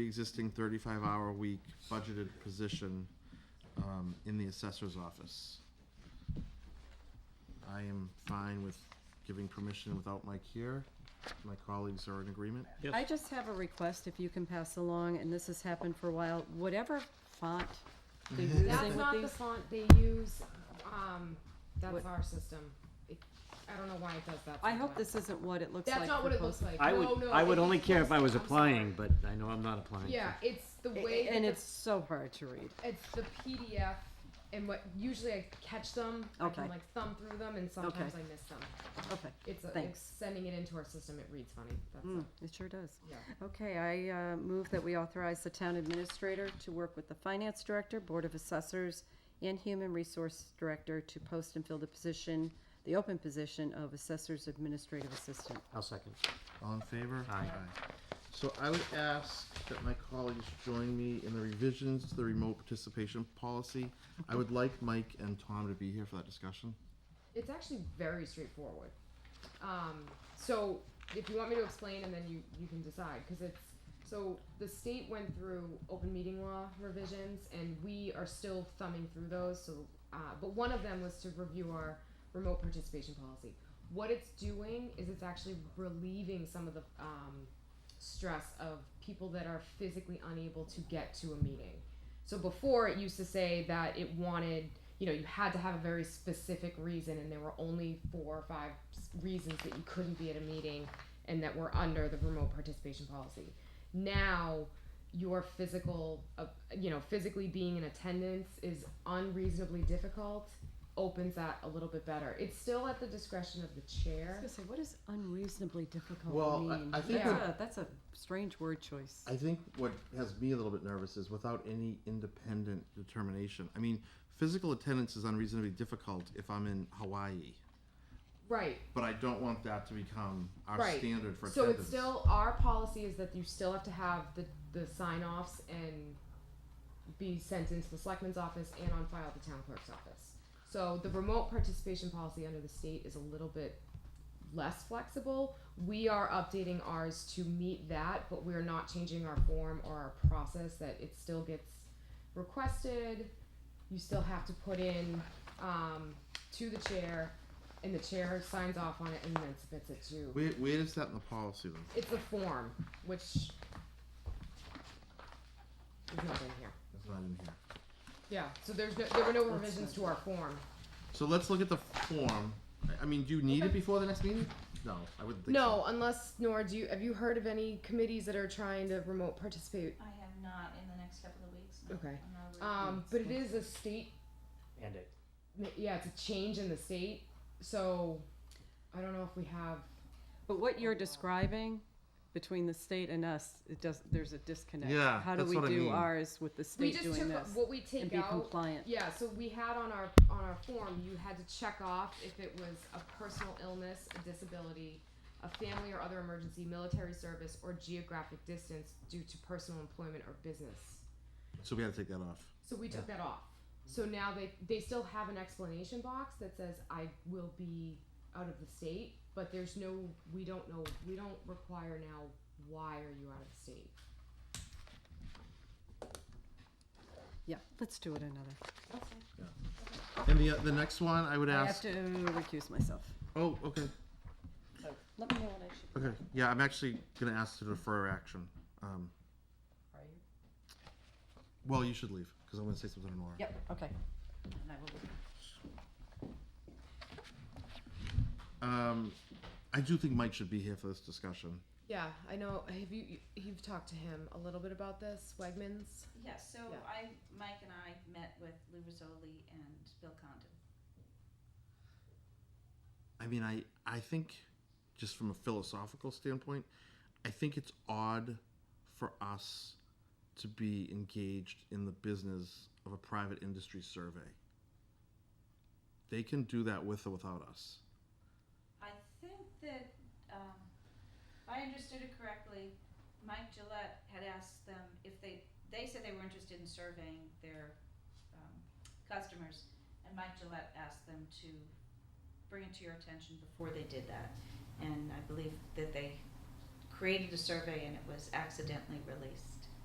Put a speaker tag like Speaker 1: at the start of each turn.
Speaker 1: pre-existing thirty-five hour week budgeted position, um, in the assessor's office. I am fine with giving permission without Mike here. My colleagues are in agreement.
Speaker 2: Yes.
Speaker 3: I just have a request, if you can pass along, and this has happened for a while, whatever font they're using
Speaker 4: Mm-hmm. That's
Speaker 3: with
Speaker 4: not the
Speaker 3: these.
Speaker 4: font they use, um,
Speaker 3: What-
Speaker 4: that's our system. It- I don't know why it does that.
Speaker 3: I hope
Speaker 4: sometimes.
Speaker 3: this isn't what it looks like.
Speaker 4: That's not
Speaker 3: for
Speaker 4: what it
Speaker 3: posting.
Speaker 4: looks like.
Speaker 2: I
Speaker 4: No,
Speaker 2: would,
Speaker 4: Oh, no,
Speaker 2: I would
Speaker 4: it-
Speaker 2: only care if I was
Speaker 4: I'm
Speaker 2: applying,
Speaker 4: sorry.
Speaker 2: but I know I'm not applying. so-
Speaker 4: Yeah, it's the
Speaker 3: A-
Speaker 4: way.
Speaker 3: And
Speaker 4: that
Speaker 3: it's so hard to read.
Speaker 4: the- It's the PDF and what, usually I catch them, I
Speaker 3: Okay.
Speaker 4: can like thumb through them and sometimes I miss them.
Speaker 3: Okay,
Speaker 4: It's, a-
Speaker 3: Thanks.
Speaker 4: it's sending it into our system, it reads funny, that's
Speaker 3: Mm,
Speaker 4: it,
Speaker 3: it sure does.
Speaker 4: yeah.
Speaker 3: Okay, I uh, move that we authorize the town administrator to work with the finance director, board of assessors, and human resource director to post and fill the position, the open position of assessor's administrative assistant.
Speaker 2: I'll second.
Speaker 1: All in favor?
Speaker 2: Aye.
Speaker 1: So I would ask that my colleagues join me in the revisions to the remote participation policy. I would like Mike and Tom to be here for that discussion.
Speaker 4: It's actually very straightforward. Um, so if you want me to explain and then you, you can decide, cause it's, so the state went through open meeting law revisions and we are still thumbing through those, so, uh, but one of them was to review our remote participation policy. What it's doing is it's actually relieving some of the, um, stress of people that are physically unable to get to a meeting. So before it used to say that it wanted, you know, you had to have a very specific reason, and there were only four or five s- reasons that you couldn't be at a meeting, and that were under the remote participation policy. Now, your physical, uh, you know, physically being in attendance is unreasonably difficult. Opens that a little bit better. It's still at the discretion of the
Speaker 3: I was
Speaker 4: chair.
Speaker 3: gonna say, what does unreasonably difficult
Speaker 1: Well, I-
Speaker 3: mean?
Speaker 1: I think
Speaker 3: that's,
Speaker 4: that-
Speaker 3: a, that's a strange word choice.
Speaker 1: I think what has me a little bit nervous is without any independent determination. I mean, physical attendance is unreasonably difficult if I'm in Hawaii,
Speaker 4: Right.
Speaker 1: but I don't want that to become our
Speaker 4: Right.
Speaker 1: standard for
Speaker 4: So
Speaker 1: attendance.
Speaker 4: it's still our policy is that you still have to have the the sign offs and be sent into the selectman's office and on file at the town clerk's office. So the remote participation policy under the state is a little bit less flexible. We are updating ours to meet that, but we're not changing our form or our process that it still gets requested. You still have to put in um, to the chair and the chair signs off on it and then submits it to
Speaker 1: Where, where is that in the policy though?
Speaker 4: it's a form, which is not in here.
Speaker 1: It's not in here.
Speaker 4: Yeah, so there's no, there were no revisions to our form.
Speaker 1: So let's look at the form. I- I mean, do you need it
Speaker 4: Okay.
Speaker 1: before the next meeting? No, I wouldn't think so.
Speaker 4: No, unless Nora, do you have you heard of any committees that are trying to remote participate?
Speaker 5: I have not in the next couple of weeks. no.
Speaker 4: Okay.
Speaker 5: I'm not really-
Speaker 4: Um, but it is a state.
Speaker 2: And it.
Speaker 4: Yeah, it's a change in the state. So I don't know if we have.
Speaker 3: But what you're describing between the state and us, it does, there's a disconnect.
Speaker 1: Yeah,
Speaker 3: How do
Speaker 1: that's
Speaker 3: we
Speaker 1: what I
Speaker 3: do
Speaker 1: mean.
Speaker 3: ours with the
Speaker 4: We
Speaker 3: state
Speaker 4: just
Speaker 3: doing
Speaker 4: took
Speaker 3: this?
Speaker 4: what we take
Speaker 3: And be
Speaker 4: out.
Speaker 3: compliant.
Speaker 4: Yeah, so we had on our on our form, you had to check off if it was a personal illness, a disability, a family or other emergency, military service, or geographic distance due to personal employment or business.
Speaker 1: So we have to take that off.
Speaker 4: So we took that off. So now they they still have an explanation box that says I will be out of the state, but there's no we don't know we don't require now why are you out of the state.
Speaker 3: Yeah, let's do it another.
Speaker 1: And the, the next one, I would
Speaker 3: I have
Speaker 1: ask,
Speaker 3: to recuse myself.
Speaker 1: oh, okay,
Speaker 3: So let me know when I should.
Speaker 1: okay. Yeah, I'm actually gonna ask to defer action. Um,
Speaker 3: Are you?
Speaker 1: well, you should leave, cause I'm gonna say something to Nora.
Speaker 3: Yep, okay. And I will.
Speaker 1: Um, I do think Mike should be here for this discussion.
Speaker 4: Yeah, I know. Have you you've talked to him a little bit about this, Wegmans?
Speaker 5: Yes, so
Speaker 4: Yeah.
Speaker 5: I, Mike and I met with Lou Rizzoli and Bill Condon.
Speaker 1: I mean, I, I think, just from a philosophical standpoint, I think it's odd for us to be engaged in the business of a private industry survey. They can do that with or without us.
Speaker 5: I think that, um, if I understood it correctly, Mike Gillette had asked them if they, they said they were interested in surveying their, um, customers, and Mike Gillette asked them to bring it to your attention before they did that. And I believe that they created a survey and it was accidentally released.